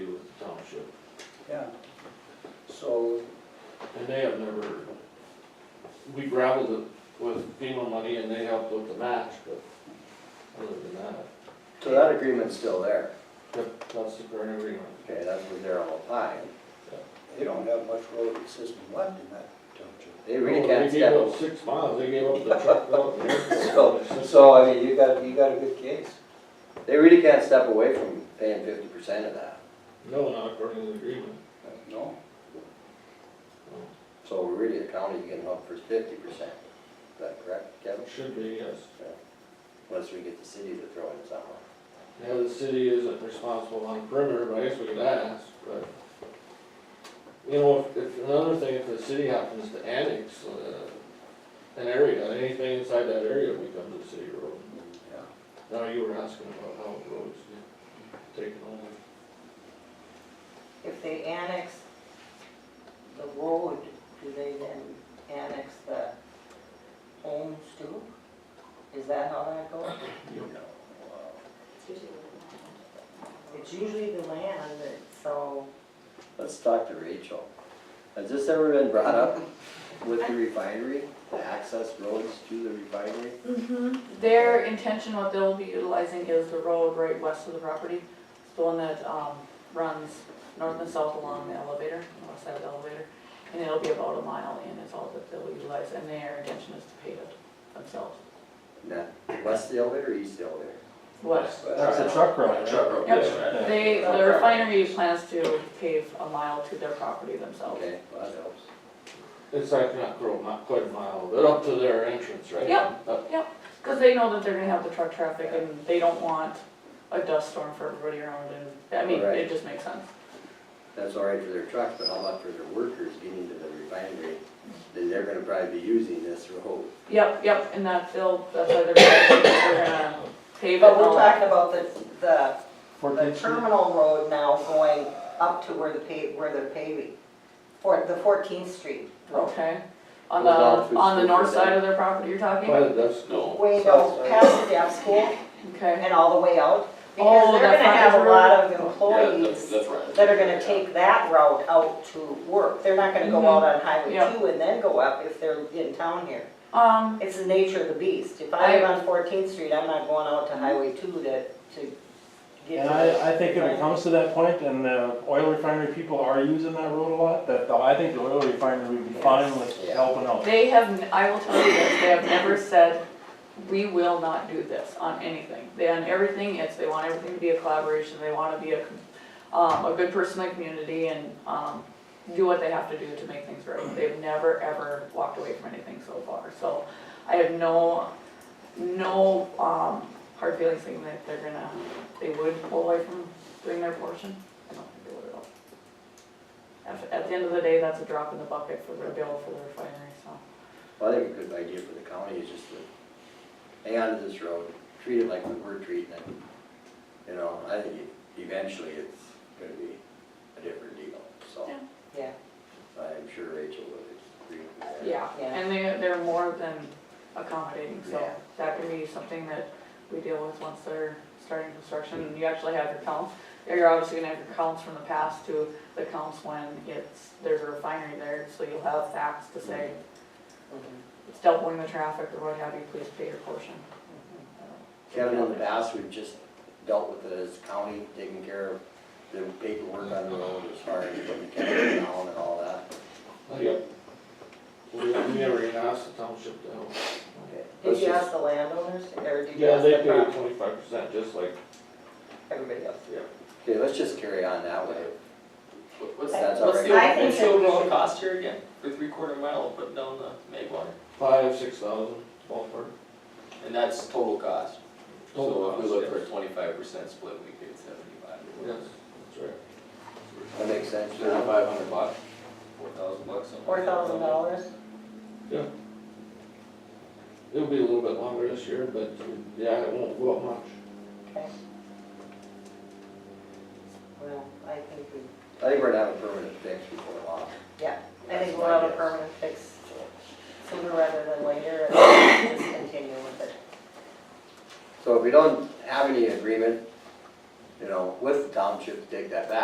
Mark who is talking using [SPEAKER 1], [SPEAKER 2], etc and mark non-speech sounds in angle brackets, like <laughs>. [SPEAKER 1] they have never, we gravelled it with FEMA money and they helped with the match, but other than that,
[SPEAKER 2] So that agreement's still there.
[SPEAKER 1] yep, that's the current agreement.
[SPEAKER 2] Okay, that's what they're all applying.
[SPEAKER 3] They don't have much road system left in that township.
[SPEAKER 2] They really
[SPEAKER 1] Well,
[SPEAKER 2] can't
[SPEAKER 1] Oh, They gave
[SPEAKER 2] step
[SPEAKER 1] up six miles, they gave up the
[SPEAKER 2] <laughs>
[SPEAKER 1] truck route. and
[SPEAKER 2] So-
[SPEAKER 1] everything.
[SPEAKER 2] So, I mean, you got,
[SPEAKER 3] You got a good case.
[SPEAKER 2] they really can't step away from paying fifty percent of that.
[SPEAKER 1] No, not according to the agreement.
[SPEAKER 3] No,
[SPEAKER 2] So really, the county can help for fifty percent. Is that correct, Kevin?
[SPEAKER 1] It should be, yes.
[SPEAKER 2] Unless we get the city to throw in something.
[SPEAKER 1] Now, the city isn't responsible on perimeter, but I guess we could ask, but. You know, if, if, another thing, if the city happens to annex, uh, an area, anything inside that area will become the city road.
[SPEAKER 3] yeah.
[SPEAKER 1] Now, you were asking about how roads get taken over.
[SPEAKER 4] If they annex the road, do they then annex the homes too? Is that how that goes?
[SPEAKER 2] You know.
[SPEAKER 4] It's usually the land that's so,
[SPEAKER 2] Let's talk to Rachel. Has this ever been brought up with the refinery, the access roads to the refinery?
[SPEAKER 5] Their intention, what they'll be utilizing is the road right west of the property. It's the one that, um, runs north and south along the elevator, the west side of the elevator. And it'll be about a mile in is all that they'll utilize, and their intention is to pave it themselves.
[SPEAKER 2] Now, west of the elevator, east of the elevator?
[SPEAKER 5] West.
[SPEAKER 3] That's
[SPEAKER 5] a
[SPEAKER 6] truck route.
[SPEAKER 2] Truck road.
[SPEAKER 5] Yep, they, the refinery plans to pave a mile to their property themselves.
[SPEAKER 2] Okay, well, that helps.
[SPEAKER 1] It's like not grow, not quite a mile, but up to their entrance, right?
[SPEAKER 5] Yep.
[SPEAKER 1] Up-
[SPEAKER 5] Cause they know that they're gonna have the truck traffic and they don't want a dust storm for everybody around and, I mean,
[SPEAKER 2] Right.
[SPEAKER 5] it just makes sense.
[SPEAKER 2] That's all right for their trucks, but how about for their workers getting to the refinery? Then they're gonna probably be using this road.
[SPEAKER 5] Yep, yep, and that they'll, that's why they're, they're gonna pave it
[SPEAKER 4] but we're
[SPEAKER 5] all.
[SPEAKER 4] talking about the, the, the terminal road now going up to where the pave, where they're paving. For the Fourteenth Street road,
[SPEAKER 5] Okay, on
[SPEAKER 2] Goes all
[SPEAKER 5] the,
[SPEAKER 2] through
[SPEAKER 5] on the
[SPEAKER 2] school
[SPEAKER 5] north
[SPEAKER 2] for
[SPEAKER 5] side
[SPEAKER 2] them.
[SPEAKER 5] of their property you're talking?
[SPEAKER 1] By the dust, no.
[SPEAKER 4] way down past the dance school
[SPEAKER 5] Okay,
[SPEAKER 4] and all the way out.
[SPEAKER 5] Oh,
[SPEAKER 4] Because they're gonna
[SPEAKER 5] the front
[SPEAKER 4] have a
[SPEAKER 5] road.
[SPEAKER 4] lot of
[SPEAKER 6] Yeah,
[SPEAKER 4] employees
[SPEAKER 6] that's, that's right.
[SPEAKER 4] that are gonna take that route out to work. They're not gonna go
[SPEAKER 5] Mhm.
[SPEAKER 4] out on Highway
[SPEAKER 5] Yep.
[SPEAKER 4] two and then go up if they're in town here.
[SPEAKER 5] um,
[SPEAKER 4] It's the nature of the beast. If I live
[SPEAKER 5] I-
[SPEAKER 4] on Fourteenth Street, I'm not going out to Highway two to, to get
[SPEAKER 6] And
[SPEAKER 4] to.
[SPEAKER 6] I, I think if it comes to that point, and the oil refinery people are using that road a lot, that the- I think the oil refinery would be fine with helping out.
[SPEAKER 5] they have, n- I will tell you this, they have never said, we will not do this on anything. They, on everything, it's, they want everything to be a collaboration, they wanna be a, um, a good person in the community and, um, do what they have to do to make things right. They've never, ever walked away from anything so far, so I have no, no, um, hard feelings thinking that they're gonna, they would pull away from doing their portion. I don't think they would at all. At, at the end of the day, that's a drop in the bucket for their bill for the refinery, so.
[SPEAKER 2] Well, I think a good idea for the county is just to hang on to this road, treat it like we were treating it. You know, I think eventually it's gonna be a different deal, so
[SPEAKER 5] Yeah.
[SPEAKER 4] Yeah,
[SPEAKER 2] I'm sure Rachel would agree with that.
[SPEAKER 5] Yeah,
[SPEAKER 4] Yeah.
[SPEAKER 5] and they, they're more than accommodating, so
[SPEAKER 2] Yeah.
[SPEAKER 5] that can be something that we deal with once they're starting construction. And you actually have your counts, you're obviously gonna have your counts from the past to the counts when it's, there's a refinery there, so you'll have facts to say,
[SPEAKER 4] mhm,
[SPEAKER 5] it's doubling the traffic or what have you, please pay your portion.
[SPEAKER 2] Kevin, in the past, we've just dealt with it as county, taking care of the paperwork on the road as far as putting the county down and all that.
[SPEAKER 1] Yep. We, we never even asked the township to help.
[SPEAKER 2] Okay,
[SPEAKER 4] Did
[SPEAKER 2] let's
[SPEAKER 4] you
[SPEAKER 2] just-
[SPEAKER 4] ask the landowners or did you
[SPEAKER 1] Yeah,
[SPEAKER 4] ask
[SPEAKER 1] they
[SPEAKER 4] the
[SPEAKER 1] paid
[SPEAKER 4] prop-
[SPEAKER 1] twenty-five percent, just like,
[SPEAKER 4] everybody else?
[SPEAKER 1] yeah.
[SPEAKER 2] Okay, let's just carry on that way.
[SPEAKER 7] What- What's,
[SPEAKER 2] That's all
[SPEAKER 7] what's
[SPEAKER 2] right.
[SPEAKER 7] the,
[SPEAKER 4] I think
[SPEAKER 7] what's the
[SPEAKER 4] that we
[SPEAKER 7] overall
[SPEAKER 4] should-
[SPEAKER 7] cost here again, for three quarter mile, putting down the Magway?
[SPEAKER 1] Five, six thousand ballpark.
[SPEAKER 7] And that's total cost, so
[SPEAKER 1] Total
[SPEAKER 7] if we
[SPEAKER 1] cost,
[SPEAKER 7] look for a twenty-five percent split, we paid seventy-five.
[SPEAKER 1] Yes, that's right.
[SPEAKER 2] That makes sense.
[SPEAKER 7] Thirty-five hundred bucks, four thousand bucks. something
[SPEAKER 4] Four
[SPEAKER 7] like that.
[SPEAKER 4] thousand dollars?
[SPEAKER 1] It'll be a little bit longer this year, but yeah, it won't go up much.
[SPEAKER 4] Okay. Well, I think we,
[SPEAKER 2] I think we're gonna have a permanent fix before long.
[SPEAKER 4] yeah, I
[SPEAKER 2] That's
[SPEAKER 4] think we'll have
[SPEAKER 2] my
[SPEAKER 4] a
[SPEAKER 2] guess.
[SPEAKER 4] permanent fix sooner rather than later and just continue with it.
[SPEAKER 2] So if we don't have any agreement, you know, with the township to take that back,